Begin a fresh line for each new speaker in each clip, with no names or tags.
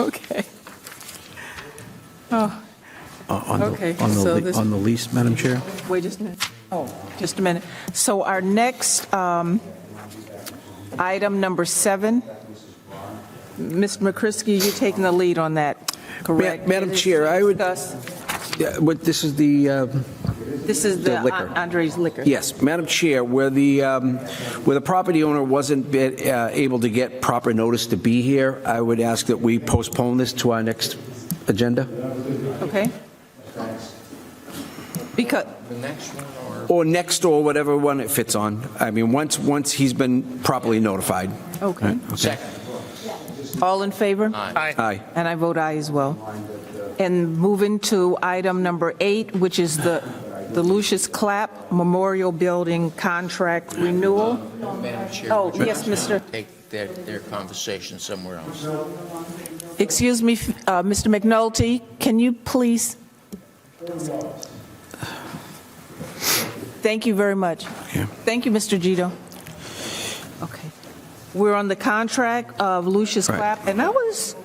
Okay. Oh,
Uh, On
Okay,
the, on
so
the, le-
this-
on the lease, Madam Chair?
wait just a minute. Oh, just a minute. So our next um, item, number seven, Mr. McCrisky, you're taking the lead on that, correct?
Madam
It is
Chair, I would-
discuss-
Yeah, But this is the, uh,
This is the
The liquor.
Andres liquor.
yes, Madam Chair, where the, um, where the property owner wasn't be- uh, able to get proper notice to be here, I would ask that we postpone this to our next agenda,
Okay? Because,
or next, or whatever one it fits on. I mean, once, once he's been properly notified.
okay. All in favor?
Aye.
And I vote aye as well. And moving to item number eight, which is the the Lucius Clapp Memorial Building Contract Renewal.
Madam Chair.
Oh,
would you
yes, Mr.
Take their, their conversation somewhere else.
Excuse me, uh, Mr. McNulty, can you please? Thank you very much. Thank you, Mr. Gito. Okay. We're on the contract of Lucius
Right.
Clapp, and I was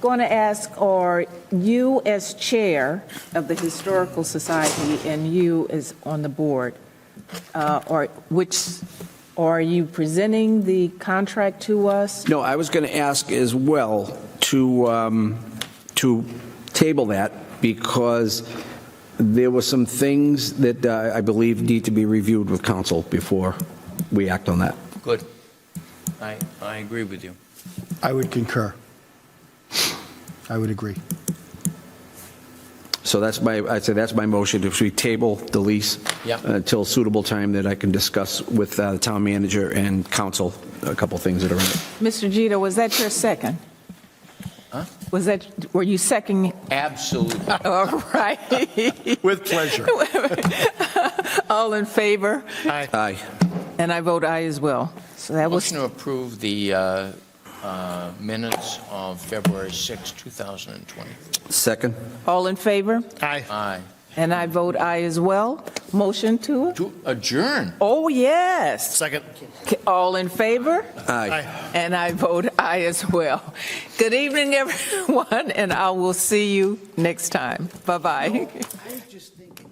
going to ask, are you as chair of the Historical Society and you as on the board, uh, or which, are you presenting the contract to us?
No, I was going to ask as well to, um, to table that because there were some things that uh, I believe need to be reviewed with council before we act on that.
Good. I, I agree with you.
I would concur. I would agree.
So that's my, I'd say that's my motion, if we table the lease
Yep.
until suitable time that I can discuss with uh, the town manager and council, a couple things that are in it.
Mr. Gito, was that your second? Was that, were you seconding?
Absolutely.
All right.
With pleasure.
All in favor?
Aye.
And I vote aye as well. So that was,
Motion to approve the uh, uh, minutes of February 6, 2020.
Second?
all in favor?
Aye.
And I vote aye as well. Motion to,
To adjourn.
oh, yes.
Second.
All in favor?
Aye.
And I vote aye as well. Good evening, everyone, and I will see you next time. Bye-bye.
I just think